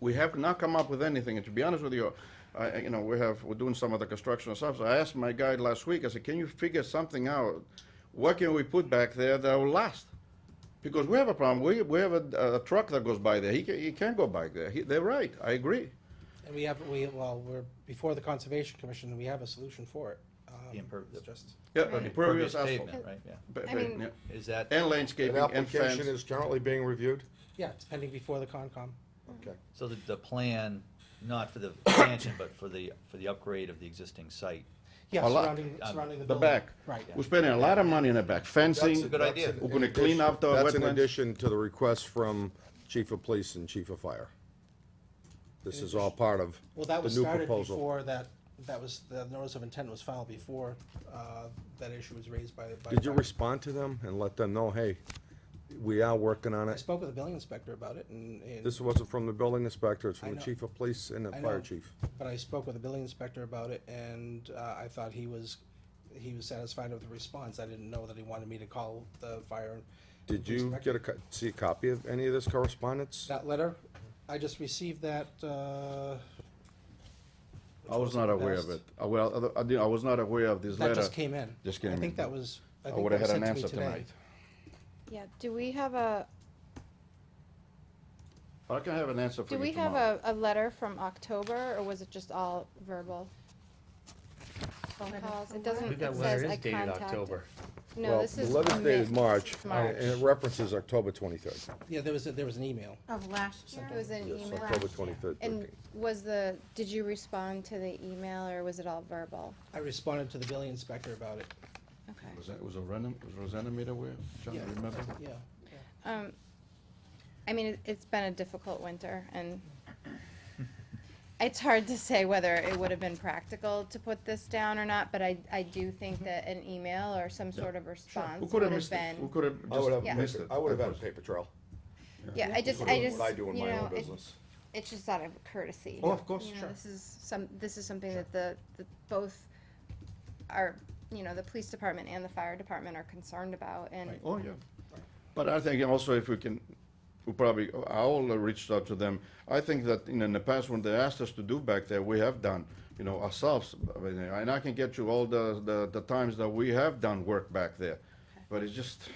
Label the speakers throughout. Speaker 1: we have not come up with anything, and to be honest with you, I, I- you know, we have, we're doing some of the construction and stuff, so I asked my guy last week, I said, can you figure something out? What can we put back there that will last? Because we have a problem, we, we have a, a truck that goes by there, he can, he can't go back there, he, they're right, I agree.
Speaker 2: And we have, we, well, we're before the Conservation Commission, and we have a solution for it. Um,
Speaker 3: The imperv-
Speaker 2: it's Just,
Speaker 1: Yeah,
Speaker 4: Right.
Speaker 1: impervious asphalt.
Speaker 3: pavement, right, yeah.
Speaker 1: Pa-
Speaker 4: I mean-
Speaker 1: yeah.
Speaker 3: Is that,
Speaker 1: And
Speaker 5: An
Speaker 1: landscaping and fence.
Speaker 5: application is currently being reviewed?
Speaker 2: yeah, it's pending before the Concom.
Speaker 5: Okay.
Speaker 3: so the, the plan, not for the expansion, but for the, for the upgrade of the existing site?
Speaker 2: Yeah,
Speaker 1: A lot.
Speaker 2: surrounding,
Speaker 3: Um,
Speaker 2: surrounding the
Speaker 1: The
Speaker 2: building.
Speaker 1: back.
Speaker 2: Right.
Speaker 1: We're spending a lot of money in the back, fencing.
Speaker 5: That's-
Speaker 3: good
Speaker 5: that's
Speaker 3: idea.
Speaker 5: in-
Speaker 1: We're gonna
Speaker 5: in
Speaker 1: clean up the
Speaker 5: addition- That's in
Speaker 1: wetlands.
Speaker 5: addition to the request from chief of police and chief of fire. This is all part of
Speaker 2: Well, that
Speaker 5: the
Speaker 2: was
Speaker 5: new
Speaker 2: started
Speaker 5: proposal.
Speaker 2: before that, that was, the notice of intent was filed before, uh, that issue was raised by. by-
Speaker 5: Did you
Speaker 2: by-
Speaker 5: respond to them and let them know, hey, we are working on
Speaker 2: I
Speaker 5: it?
Speaker 2: spoke with the building inspector about it and. and-
Speaker 5: This wasn't from the building inspector, it's
Speaker 2: I
Speaker 5: from the
Speaker 2: know.
Speaker 5: chief of police and the
Speaker 2: I
Speaker 5: fire
Speaker 2: know,
Speaker 5: chief.
Speaker 2: But I spoke with the building inspector about it, and uh, I thought he was, he was satisfied with the response. I didn't know that he wanted me to call the fire. and
Speaker 5: Did
Speaker 2: police
Speaker 5: you
Speaker 2: director.
Speaker 5: get a, co- see a copy of any of this correspondence?
Speaker 2: That letter, I just received that, uh,
Speaker 1: I was not aware of it.
Speaker 2: Best.
Speaker 1: Uh, Well, other- I, did- I was not aware of this letter.
Speaker 2: that just came in.
Speaker 1: just came
Speaker 2: I think
Speaker 1: in.
Speaker 2: that was, I
Speaker 1: I
Speaker 2: think
Speaker 1: would've
Speaker 2: that was
Speaker 1: had
Speaker 2: sent
Speaker 1: an
Speaker 2: to me
Speaker 1: answer
Speaker 2: today.
Speaker 1: tonight.
Speaker 4: Yeah, do we have a,
Speaker 1: I can have an answer for
Speaker 4: do
Speaker 1: you
Speaker 4: we have
Speaker 1: tomorrow.
Speaker 4: a, a letter from October, or was it just all verbal? Phone calls, it
Speaker 6: I
Speaker 4: doesn't,
Speaker 6: believe
Speaker 4: it
Speaker 6: that letter
Speaker 4: says
Speaker 6: is
Speaker 4: I
Speaker 6: dated
Speaker 4: contacted.
Speaker 6: October.
Speaker 4: No,
Speaker 5: Well,
Speaker 4: this is.
Speaker 5: The letter's
Speaker 4: from
Speaker 5: dated
Speaker 4: May-
Speaker 5: March,
Speaker 4: It's
Speaker 5: and
Speaker 4: March.
Speaker 5: it references October twenty-third.
Speaker 2: Yeah, there was, a- there was an email.
Speaker 6: Of last year?
Speaker 4: It was an
Speaker 5: Yes,
Speaker 4: email.
Speaker 5: October twenty-third.
Speaker 4: And was the, did you respond to the email, or was it all verbal?
Speaker 2: I responded to the building inspector about it,
Speaker 4: Okay.
Speaker 1: Was that, was Rosanna, was Rosanna made aware? John,
Speaker 2: Yeah.
Speaker 1: remember?
Speaker 2: yeah.
Speaker 4: Um, I mean, it- it's been a difficult winter, and it's hard to say whether it would have been practical to put this down or not, but I, I do think that an email or some sort of
Speaker 1: Who
Speaker 4: response
Speaker 1: could
Speaker 4: would
Speaker 1: have
Speaker 4: have
Speaker 1: missed it? Who
Speaker 4: been.
Speaker 1: could have
Speaker 5: I would
Speaker 1: just
Speaker 5: have,
Speaker 1: missed
Speaker 5: paper-
Speaker 1: it?
Speaker 5: I would have had a
Speaker 1: was-
Speaker 5: paper trail.
Speaker 4: Yeah, I just, I just,
Speaker 5: What I do in
Speaker 4: you
Speaker 5: my own
Speaker 4: know, it-
Speaker 5: business.
Speaker 4: it's just out of courtesy.
Speaker 1: Oh, of course,
Speaker 4: You know,
Speaker 1: sure.
Speaker 4: This is some, this is something that the, the, both are, you know, the police department and the fire department are concerned about, and
Speaker 1: Right. Oh, yeah. But I think also if we can, we probably, I will reach out to them. I think that in, in the past, when they asked us to do back there, we have done, you know, ourselves. I mean, And I can get you all the, the, the times that we have done work back there. But it's just,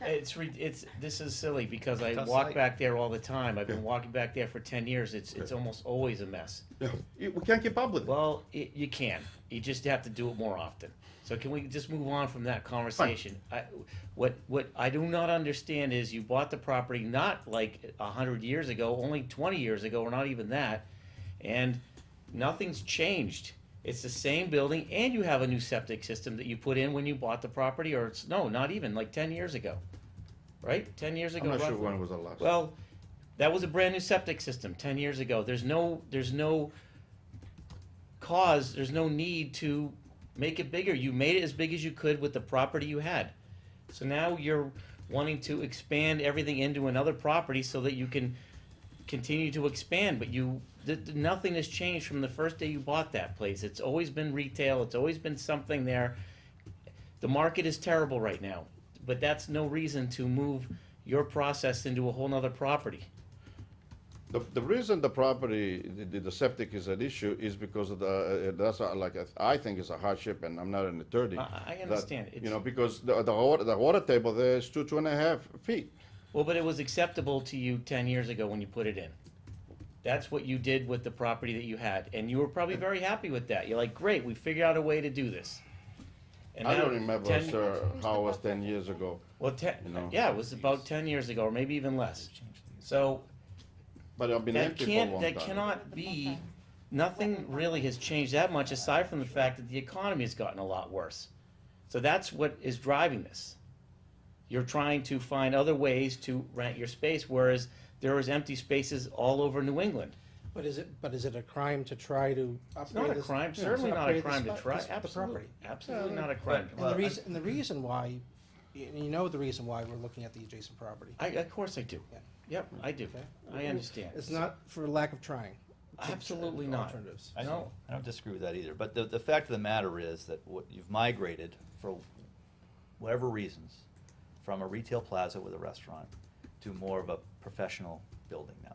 Speaker 6: It's, re- it's, this is silly because I
Speaker 3: Tough
Speaker 6: walk
Speaker 3: site.
Speaker 6: back there all the time. I've been walking back there for ten years. It's, it's almost always a mess.
Speaker 1: you know, you- we can't keep up with it.
Speaker 6: Well, y you can. You just have to do it more often. So can we just move on from that conversation? I, what what I do not understand is you bought the property not like a hundred years ago, only twenty years ago, or not even that, and nothing's changed. It's the same building, and you have a new septic system that you put in when you bought the property, or it's no, not even like ten years ago, right? Ten years ago.
Speaker 1: I'm not sure
Speaker 6: roughly.
Speaker 1: when was the last.
Speaker 6: Well, that was a brand new septic system ten years ago. There's no there's no cause, there's no need to make it bigger. You made it as big as you could with the property you had. So now you're wanting to expand everything into another property so that you can continue to expand, but you th- th- nothing has changed from the first day you bought that place. It's always been retail, it's always been something there. The market is terrible right now, but that's no reason to move your process into a whole nother property.
Speaker 1: The, the reason the property, the- the, the septic is an issue is because of the, uh, that's uh, like, I think it's a hardship and I'm not an attorney.
Speaker 6: I- I
Speaker 1: that,
Speaker 6: understand.
Speaker 1: You
Speaker 6: It's-
Speaker 1: know, because the, the water, the water table there is two, two and a half feet.
Speaker 6: Well, but it was acceptable to you ten years ago when you put it in. That's what you did with the property that you had, and you were probably very happy with that. You're like, great, we figured out a way to do this. And
Speaker 1: I
Speaker 6: now
Speaker 1: don't remember,
Speaker 6: 10
Speaker 1: sir, how it was ten years ago.
Speaker 6: Well, ten,
Speaker 1: you know.
Speaker 6: yeah, it was about ten years ago, or maybe even less. So
Speaker 1: But I've been
Speaker 6: that
Speaker 1: empty for a
Speaker 6: can't,
Speaker 1: long
Speaker 6: that
Speaker 1: time.
Speaker 6: cannot be. Nothing really has changed that much, aside from the fact that the economy has gotten a lot worse. So that's what is driving this. You're trying to find other ways to rent your space, whereas there is empty spaces all over New England.
Speaker 2: But is it, but is it a crime to try to
Speaker 6: It's not
Speaker 2: upgrade
Speaker 6: a
Speaker 2: this?
Speaker 6: crime,
Speaker 2: yeah, it's
Speaker 6: certainly not
Speaker 2: upgrade
Speaker 6: a
Speaker 2: this
Speaker 6: crime to
Speaker 2: fu-
Speaker 6: try,
Speaker 2: this- the
Speaker 6: absolutely,
Speaker 2: property.
Speaker 6: absolutely not a crime.
Speaker 3: But-
Speaker 2: And the
Speaker 3: Well, I-
Speaker 2: reason, and the reason why, y- and you know the reason why we're looking at the adjacent property.
Speaker 6: I, of course I do.
Speaker 2: Yeah.
Speaker 6: Yep, I do.
Speaker 2: Okay.
Speaker 6: I understand.
Speaker 2: It's not for lack of trying.
Speaker 6: Absolutely not.
Speaker 2: Alternatives.
Speaker 3: I don't, I don't disagree with that either, but the, the fact of the matter is that what, you've migrated for whatever reasons, from a retail plaza with a restaurant to more of a professional building now.